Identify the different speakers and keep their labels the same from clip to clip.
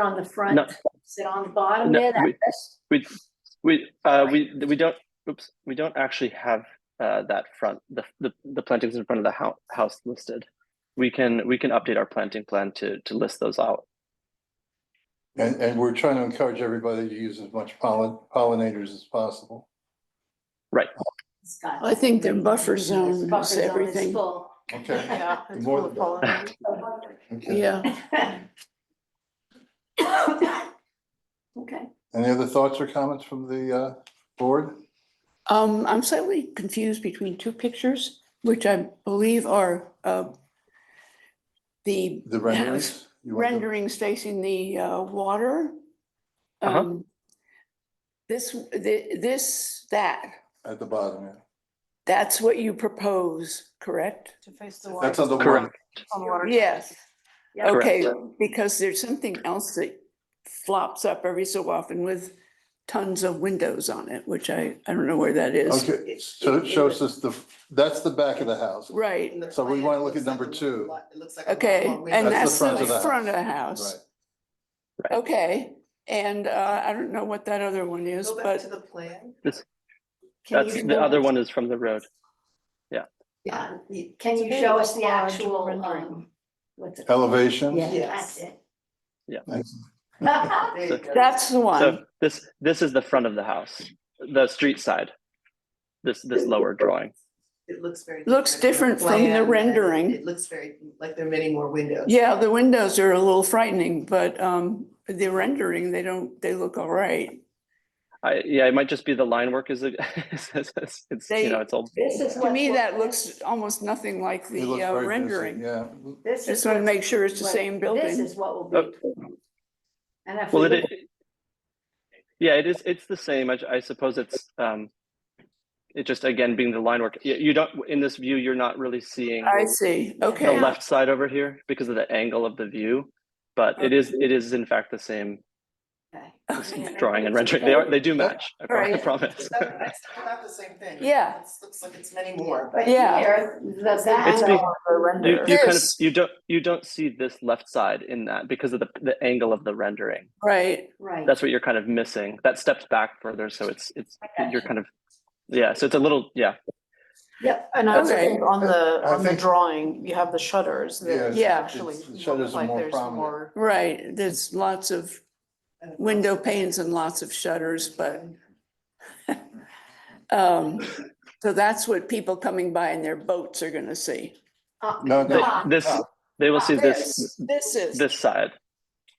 Speaker 1: on the front,
Speaker 2: No.
Speaker 1: is it on the bottom
Speaker 2: No,
Speaker 1: there? That-
Speaker 2: we-
Speaker 1: that's-
Speaker 2: We, we, uh, we, we don't, oops, we don't actually have, uh, that front, the, the, the plantings in front of the house, house listed. We can, we can update our planting plan to, to list those out.
Speaker 3: And, and we're trying to encourage everybody to use as much pollen, pollinators as possible.
Speaker 1: it's got-
Speaker 4: I think their buffer zone
Speaker 1: Buffer
Speaker 4: is
Speaker 1: zone is
Speaker 4: everything.
Speaker 1: full.
Speaker 3: Okay.
Speaker 5: Yeah,
Speaker 3: The
Speaker 5: it's
Speaker 3: more
Speaker 5: full of
Speaker 3: the better.
Speaker 5: pollen.
Speaker 3: Okay.
Speaker 4: Yeah,
Speaker 1: Okay,
Speaker 3: Any other thoughts or comments from the, uh, board?
Speaker 4: um, I'm slightly confused between two pictures, which I believe are, uh, the
Speaker 3: The renderings? You want the-
Speaker 4: renderings facing the, uh, water.
Speaker 2: Uh-huh.
Speaker 4: Um, This, thi- this, that,
Speaker 3: At the bottom, yeah.
Speaker 4: that's what you propose, correct?
Speaker 5: To face the
Speaker 3: That's
Speaker 5: water.
Speaker 3: on the
Speaker 2: Correct.
Speaker 3: one,
Speaker 5: on the water.
Speaker 4: Yes,
Speaker 1: yeah,
Speaker 2: Correct.
Speaker 4: okay, because there's something else that flops up every so often with tons of windows on it, which I, I don't know where that is.
Speaker 3: okay, so it shows us the, that's the back of the house.
Speaker 4: Right,
Speaker 6: In the
Speaker 3: So we
Speaker 6: plan,
Speaker 3: wanna
Speaker 6: it
Speaker 3: look at
Speaker 6: looks like
Speaker 3: number
Speaker 6: a
Speaker 3: two.
Speaker 6: lot- It looks like. a lot
Speaker 4: okay,
Speaker 6: more windows.
Speaker 4: and
Speaker 3: That's
Speaker 4: that's
Speaker 3: the front
Speaker 4: the
Speaker 3: of the
Speaker 4: front of the
Speaker 3: Right.
Speaker 4: house. Okay, and uh, I don't know what that other one is,
Speaker 6: Go back
Speaker 4: but
Speaker 6: to the plan.
Speaker 1: Can
Speaker 2: That's,
Speaker 1: you
Speaker 2: the
Speaker 1: go-
Speaker 2: other one is from the road.
Speaker 1: Yeah,
Speaker 6: You-
Speaker 1: can you
Speaker 5: It's
Speaker 1: show
Speaker 5: a
Speaker 1: us the
Speaker 5: very large
Speaker 1: actual,
Speaker 5: rendering.
Speaker 1: um, what's it?
Speaker 3: Elevation?
Speaker 1: Yeah,
Speaker 6: Yes.
Speaker 1: that's it.
Speaker 6: there you go.
Speaker 4: that's the
Speaker 2: So
Speaker 4: one.
Speaker 2: this, this is the front of the house, the street side. This, this lower drawing.
Speaker 6: It looks very.
Speaker 4: Looks different from the
Speaker 6: Plan, and it-
Speaker 4: rendering.
Speaker 6: It looks very, like there are many more windows.
Speaker 4: Yeah, the windows are a little frightening, but um, the rendering, they don't, they look all right.
Speaker 2: I, yeah, it might just be the line work is, it's, it's, it's, you know,
Speaker 4: They-
Speaker 2: it's old.
Speaker 1: This is
Speaker 4: To
Speaker 1: what-
Speaker 4: me, that looks almost nothing like
Speaker 3: It looks
Speaker 4: the uh,
Speaker 3: very busy,
Speaker 4: rendering.
Speaker 3: Yeah, Mm,
Speaker 1: This is
Speaker 4: Just want to
Speaker 1: what-
Speaker 4: make sure it's the
Speaker 1: what-
Speaker 4: same
Speaker 1: This
Speaker 4: building.
Speaker 1: is what will be. And if
Speaker 2: Oh. Well,
Speaker 1: we
Speaker 2: it,
Speaker 1: look
Speaker 2: i- yeah, it is, it's the same. I, I suppose it's, um, it just, again, being the line work, you, you don't, in this view, you're not really seeing
Speaker 4: I see,
Speaker 2: the
Speaker 4: okay,
Speaker 2: left side over here because of the angle of the view. But it is, it is in fact the same
Speaker 1: Okay.
Speaker 4: Okay.
Speaker 2: drawing and rendering. They are, they do match, I pro- I
Speaker 4: Right.
Speaker 2: promise.
Speaker 6: It's not it's not the same thing.
Speaker 4: Yeah.
Speaker 6: It looks like it's many more.
Speaker 1: But
Speaker 4: Yeah.
Speaker 1: here, the back.
Speaker 2: It's be-
Speaker 5: The
Speaker 2: You,
Speaker 5: render.
Speaker 2: you kind of,
Speaker 4: This-
Speaker 2: you don't, you don't see this left side in that because of the, the angle of the rendering.
Speaker 4: right.
Speaker 1: Right.
Speaker 2: That's what you're kind of missing. That steps back further, so it's, it's,
Speaker 1: Okay.
Speaker 2: you're kind of, yeah, so it's a little, yeah,
Speaker 1: Yep.
Speaker 5: And I also
Speaker 4: Okay.
Speaker 5: think on the,
Speaker 3: I
Speaker 5: on the
Speaker 3: think-
Speaker 5: drawing, you have the shutters that
Speaker 4: Yeah.
Speaker 5: actually
Speaker 3: It's- the
Speaker 5: look
Speaker 3: shutters are
Speaker 5: like
Speaker 3: more
Speaker 5: there's
Speaker 3: prominent.
Speaker 5: more.
Speaker 4: Right, there's lots of
Speaker 6: uh,
Speaker 4: window panes and lots of shutters, but um, so that's what people coming by in their boats are gonna see.
Speaker 1: Uh,
Speaker 3: no,
Speaker 2: They-
Speaker 3: no,
Speaker 1: Ah.
Speaker 2: this, they will see this,
Speaker 4: This is,
Speaker 2: this side,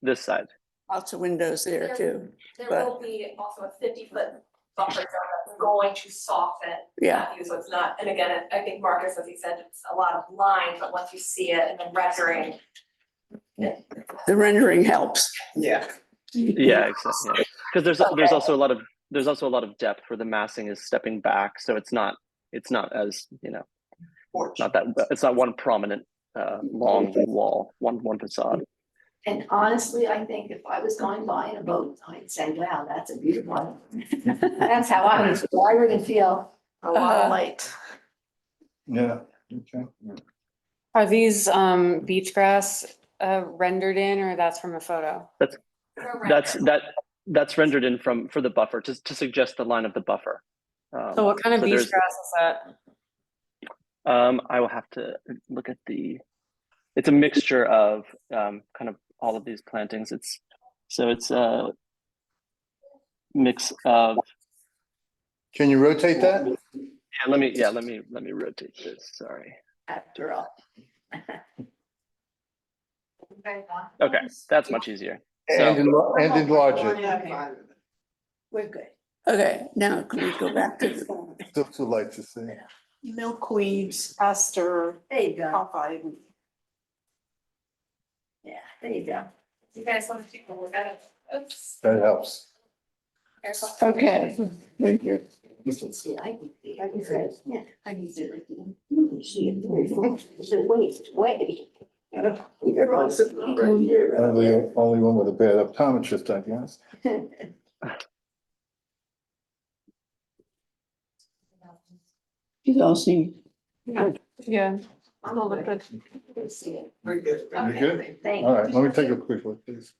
Speaker 2: this side.
Speaker 4: lots of windows there too,
Speaker 7: There
Speaker 4: but-
Speaker 7: will be also a fifty foot buffer zone that's going to soften
Speaker 4: yeah.
Speaker 7: that view, so it's not, and again, I I think Marcus, as he said, it's a lot of line, but once you see it and then rendering.
Speaker 4: The rendering helps.
Speaker 6: Yeah.
Speaker 2: Yeah, exactly. Because there's,
Speaker 7: Okay.
Speaker 2: there's also a lot of, there's also a lot of depth where the massing is stepping back, so it's not, it's not as, you know,
Speaker 6: Porch.
Speaker 2: not that, it's not one prominent, uh, long wall, one, one facade.
Speaker 1: And honestly, I think if I was going by in a boat, I'd say, wow, that's a beautiful one. That's how I would, I would feel.
Speaker 5: A lot
Speaker 4: Uh,
Speaker 5: of light.
Speaker 3: yeah, okay.
Speaker 8: Are these um beach grass uh rendered in or that's from a photo?
Speaker 7: for
Speaker 2: That's,
Speaker 7: render.
Speaker 2: that, that's rendered in from, for the buffer, to, to suggest the line of the buffer. Um,
Speaker 8: So what kind of
Speaker 2: so
Speaker 8: beach grass
Speaker 2: there's-
Speaker 8: is that?
Speaker 2: Um, I will have to look at the, it's a mixture of, um, kind of all of these plantings. It's, so it's a mix of,
Speaker 3: Can you rotate that?
Speaker 2: yeah, let me, yeah, let me, let me rotate this, sorry.
Speaker 1: After all.
Speaker 2: Okay, that's much easier.
Speaker 3: And enlar- and enlarge it,
Speaker 6: Yeah, I'm fine with it.
Speaker 1: We're good.
Speaker 4: Okay, now can we go back to, the-
Speaker 3: still too light to see.
Speaker 5: Milkweeds, aster,
Speaker 1: There you go.
Speaker 5: alpine.
Speaker 1: Yeah, there you go.
Speaker 7: You guys want to take a look at it? Oops.
Speaker 3: That helps.
Speaker 7: There's one.
Speaker 4: okay.
Speaker 1: You can see, I can see, I can see, yeah, I can see. it. You can see it very fast. It's a waste, way. You're all sitting right
Speaker 3: I'm
Speaker 1: here.
Speaker 3: the only one with a bad optometrist, I guess.
Speaker 4: You all seem,
Speaker 8: Yeah.
Speaker 1: I'm over. You can see it.
Speaker 6: We're good.
Speaker 3: You good?
Speaker 1: Thank you.
Speaker 3: All right, let me take a quick look, please.